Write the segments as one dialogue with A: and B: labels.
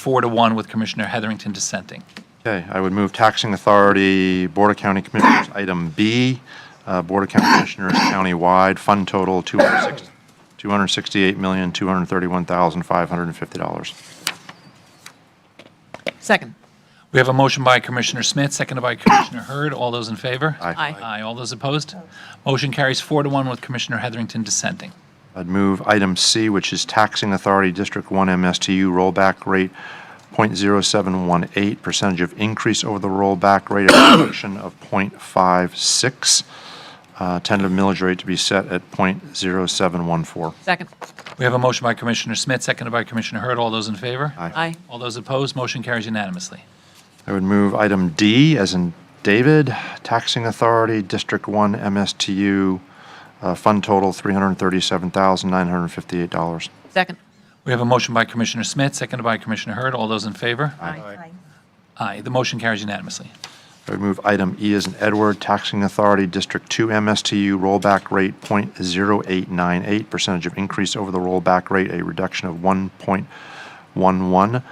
A: four to one with Commissioner Heatherington dissenting.
B: Okay, I would move taxing authority, Board of County Commissioners, item B, uh, Board of County Commissioners countywide, fund total $268,231,550.
C: Second.
A: We have a motion by Commissioner Smith, seconded by Commissioner Hurd. All those in favor?
B: Aye.
C: Aye.
A: Aye. All those opposed? Motion carries four to one with Commissioner Heatherington dissenting.
B: I'd move item C, which is taxing authority District 1 MSTU rollback rate, .0718, percentage of increase over the rollback rate of reduction of .56, uh, tentative millage rate to be set at .0714.
C: Second.
A: We have a motion by Commissioner Smith, seconded by Commissioner Hurd. All those in favor?
B: Aye.
C: Aye.
A: All those opposed? Motion carries unanimously.
B: I would move item D, as in David, taxing authority, District 1 MSTU, uh, fund total $337,958.
C: Second.
A: We have a motion by Commissioner Smith, seconded by Commissioner Hurd. All those in favor? Aye. The motion carries unanimously.
B: I would move item E as in Edward, taxing authority, District 2 MSTU, rollback rate .0898, percentage of increase over the rollback rate, a reduction of 1.11%,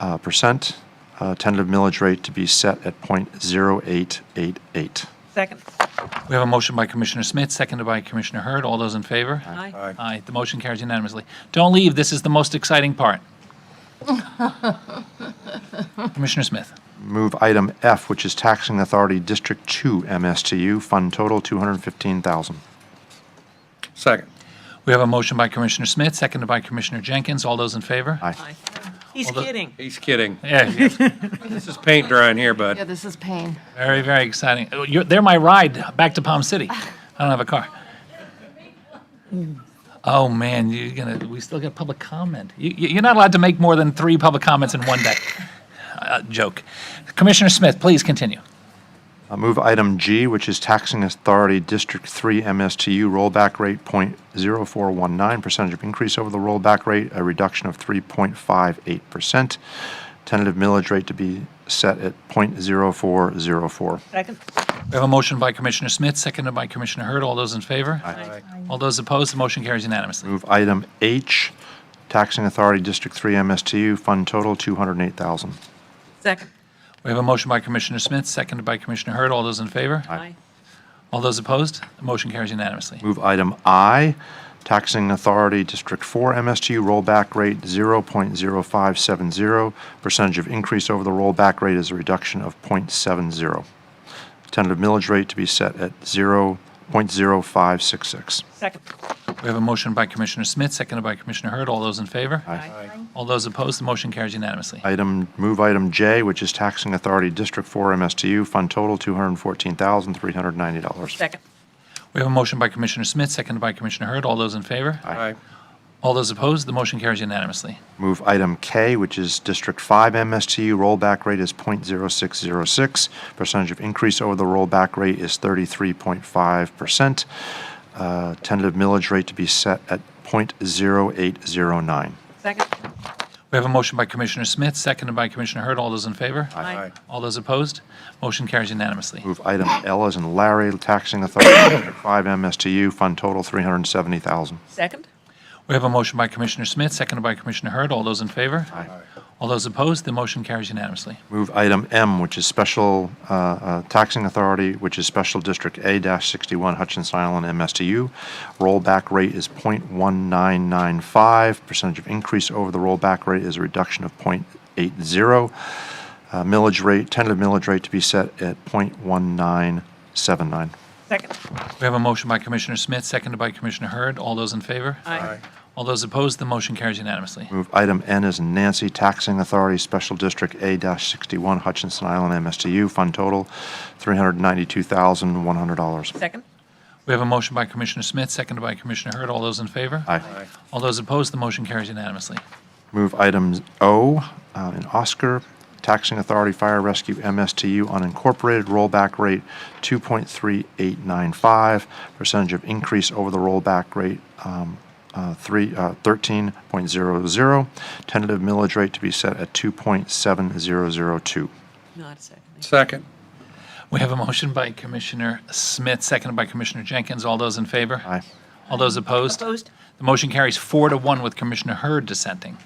B: uh, percent, uh, tentative millage rate to be set at .0888.
C: Second.
A: We have a motion by Commissioner Smith, seconded by Commissioner Hurd. All those in favor?
C: Aye.
A: Aye. The motion carries unanimously. Don't leave. This is the most exciting part. Commissioner Smith.
B: Move item F, which is taxing authority District 2 MSTU, fund total 215,000.
D: Second.
A: We have a motion by Commissioner Smith, seconded by Commissioner Jenkins. All those in favor?
B: Aye.
C: He's
A: Although-
C: kidding.
D: He's kidding.
A: Yeah, yeah.
D: This is paint drying here,
E: Yeah,
D: bud.
E: this is pain.
A: very, very exciting. Oh, you're- They're my ride back to Palm City. I don't have a car. Oh, man, you're gonna, we still got public comment. You, you- you're not allowed to make more than three public comments in one day. Uh, Joke. Commissioner Smith, please continue.
B: Uh, Move item G, which is taxing authority District 3 MSTU, rollback rate .0419, percentage of increase over the rollback rate, a reduction of 3.58%, tentative millage rate to be set at .0404.
C: Second.
A: We have a motion by Commissioner Smith, seconded by Commissioner Hurd. All those in favor?
C: Aye.
A: All those opposed, the motion carries unanimously.
B: Move item H, taxing authority District 3 MSTU, fund total 208,000.
C: Second.
A: We have a motion by Commissioner Smith, seconded by Commissioner Hurd. All those in favor?
C: Aye.
A: All those opposed, the motion carries unanimously.
B: Move item I, taxing authority District 4 MSTU rollback rate 0.0570, percentage of increase over the rollback rate is a reduction of .70. Tentative millage rate to be set at 0.0566.
C: Second.
A: We have a motion by Commissioner Smith, seconded by Commissioner Hurd. All those in favor?
C: Aye.
A: All those opposed, the motion carries unanimously.
B: Item, move item J, which is taxing authority District 4 MSTU, fund total $214,390.
C: Second.
A: We have a motion by Commissioner Smith, seconded by Commissioner Hurd. All those in favor?
D: Aye.
A: All those opposed, the motion carries unanimously.
B: Move item K, which is District 5 MSTU, rollback rate is .0606. Percentage of increase over the rollback rate is 33.5%. Uh, Tentative millage rate to be set at .0809.
C: Second.
A: We have a motion by Commissioner Smith, seconded by Commissioner Hurd. All those in favor?
C: Aye.
A: All those opposed, motion carries unanimously.
B: Move item L as in Larry, taxing authority, District 5 MSTU, fund total 370000
C: Second.
A: We have a motion by Commissioner Smith, seconded by Commissioner Hurd. All those in favor? Aye. All those opposed, the motion carries unanimously.
B: Move item M, which is special uh, uh, taxing authority, which is Special District A-61 Hutchinson Island MSTU. Rollback rate is .1995. Percentage of increase over the rollback rate is a reduction of .80. Uh, Millage rate, tentative millage rate to be set at .1979.
C: Second.
A: We have a motion by Commissioner Smith, seconded by Commissioner Hurd. All those in favor?
C: Aye.
A: All those opposed, the motion carries unanimously.
B: Move item N as in Nancy, taxing authority, Special District A-61 Hutchinson Island MSTU. Fund total, $392,100.
C: Second.
A: We have a motion by Commissioner Smith, seconded by Commissioner Hurd. All those in favor?
B: Aye.
A: All those opposed, the motion carries unanimously.
B: Move items O uh, and Oscar, taxing authority, fire rescue, MSTU, unincorporated, rollback rate 2.3895, percentage of increase over the rollback rate um, uh, three- uh, 13.00, tentative millage rate to be set at 2.7002.
C: Not a second.
D: Second.
A: We have a motion by Commissioner Smith, seconded by Commissioner Jenkins. All those in favor?
B: Aye.
A: All those opposed?
C: Opposed?
A: The motion carries four to one with Commissioner Hurd dissenting.